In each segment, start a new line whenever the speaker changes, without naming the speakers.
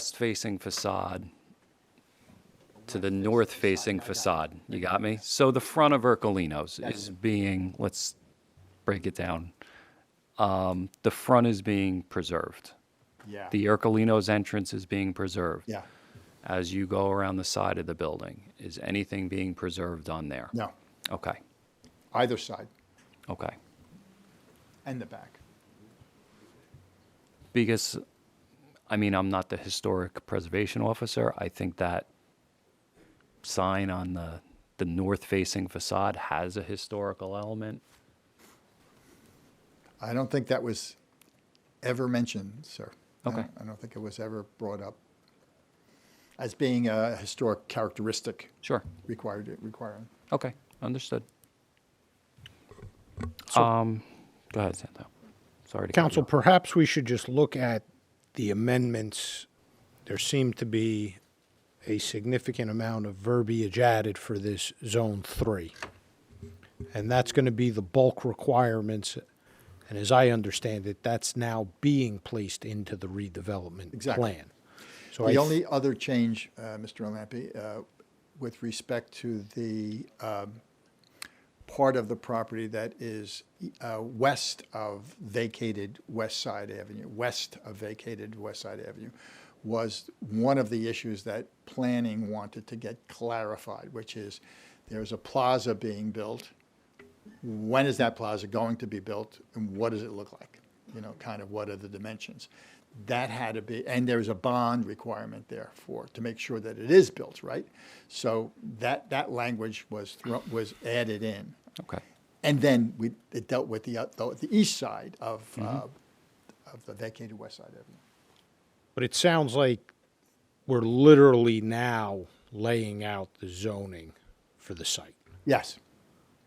west-facing facade to the north-facing facade. You got me? So the front of Ercolino's is being, let's break it down. Um, The front is being preserved.
Yeah.
The Ercolino's entrance is being preserved.
Yeah,
As you go around the side of the building, is anything being preserved on there?
no,
Okay,
either side
okay.
and the back.
Because, I mean, I'm not the historic preservation officer. I think that sign on the, the north-facing facade has a historical element.
I don't think that was ever mentioned, sir. I
Okay.
don't- I don't think it was ever brought up as being a historic characteristic
Sure,
required, requiring.
okay, understood.
So-
Um, Go ahead, Santo. Sorry to cut you
Council,
off.
perhaps we should just look at the amendments. There seemed to be a significant amount of verbiage added for this Zone 3. And that's going to be the bulk requirements. And as I understand it, that's now being placed into the redevelopment
Exactly.
plan. So I
The
th-
only other change, uh, Mr. Olampi, uh, with respect to the um, part of the property that is uh, west of vacated West Side Avenue, west of vacated West Side Avenue, was one of the issues that planning wanted to get clarified, which is there's a plaza being built when is that plaza going to be built and what does it look like? You know, kind of what are the dimensions? That had to be, and there is a bond requirement there for, to make sure that it is built, right? So that, that language was, thro- was added in.
Okay,
And then we, it dealt with the, out- the the east side of,
Mm-hmm.
uh, of the vacated west side avenue.
But it sounds like we're literally now laying out the zoning for the site.
Yes.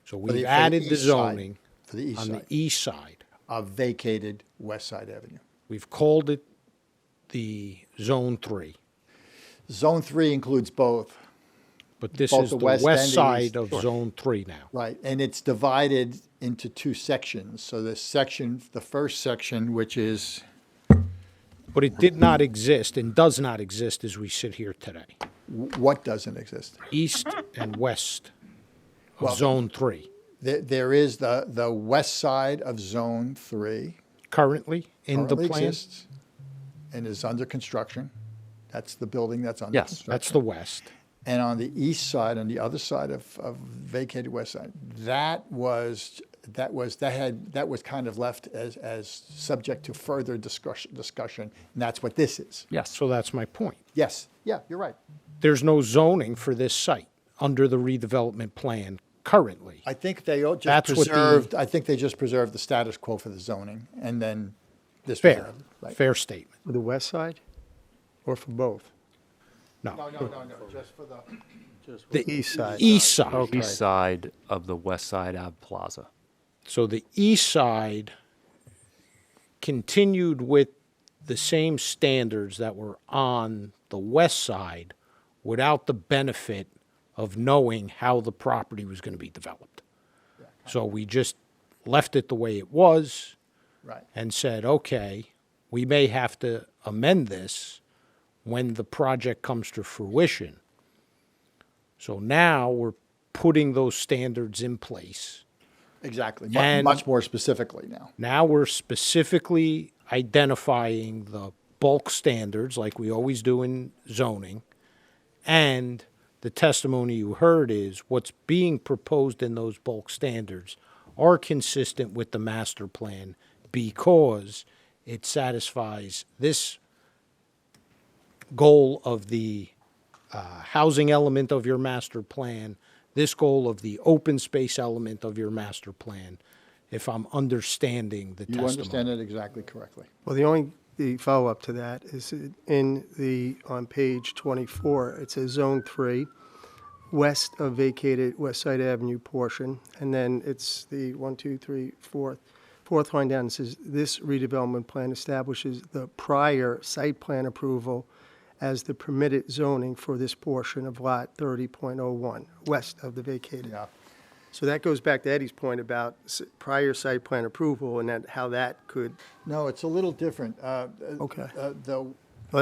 So
for the-
we've
for
added the
east side-
zoning
For the east
on the
side,
east side.
of vacated west side avenue.
We've called it the Zone 3,
Zone three includes both.
but this
Both
is
the
the
west and
west
the east.
side of Zone 3 now.
Right, and it's divided into two sections. So the section, the first section, which is,
But it did not exist and does not exist as we sit here today,
wh- what doesn't exist?
east and west of Zone 3,
There, there is the, the west side of Zone Three.
currently in the
currently
plan.
exists And is under construction. That's the building that's under
Yes,
construction.
That's the west.
And on the east side, on the other side of, of vacated west side, that was, that was, that had, that was kind of left as, as subject to further discussion, discussion, and that's what this is.
yes,
So that's my point.
Yes, yeah, you're right.
There's no zoning for this site under the redevelopment plan currently.
I think they all just
That's what the-
preserved, I think they just preserved the status quo for the zoning, and then this was
Fair,
added, right?
fair statement.
For the west side or for both?
No,
no, no, no, just for the.
the
East side.
east side.
east side of the west side Ave Plaza.
So the east side continued with the same standards that were on the west side without the benefit of knowing how the property was going to be developed. So we just left it the way it was
Right,
and said, okay, we may have to amend this when the project comes to fruition. So now we're putting those standards in place.
exactly, much,
And-
much more specifically now,
Now we're specifically identifying the bulk standards like we always do in zoning. And the testimony you heard is what's being proposed in those bulk standards are consistent with the master plan because it satisfies this goal of the uh, housing element of your master plan, this goal of the open space element of your master plan, if I'm understanding the
you understand
testimony.
it exactly correctly.
Well, the only, the follow-up to that is it- in the, on page 24, it says Zone 3, west of vacated West Side Avenue portion, and then it's the one, two, three, fourth, fourth line down, it says, "This redevelopment plan establishes the prior site plan approval as the permitted zoning for this portion of Lot 30.01, west of the vacated."
Yeah,
So that goes back to Eddie's point about s- prior site plan approval and that, how that could
Uh, no, it's a little different.
Okay.
The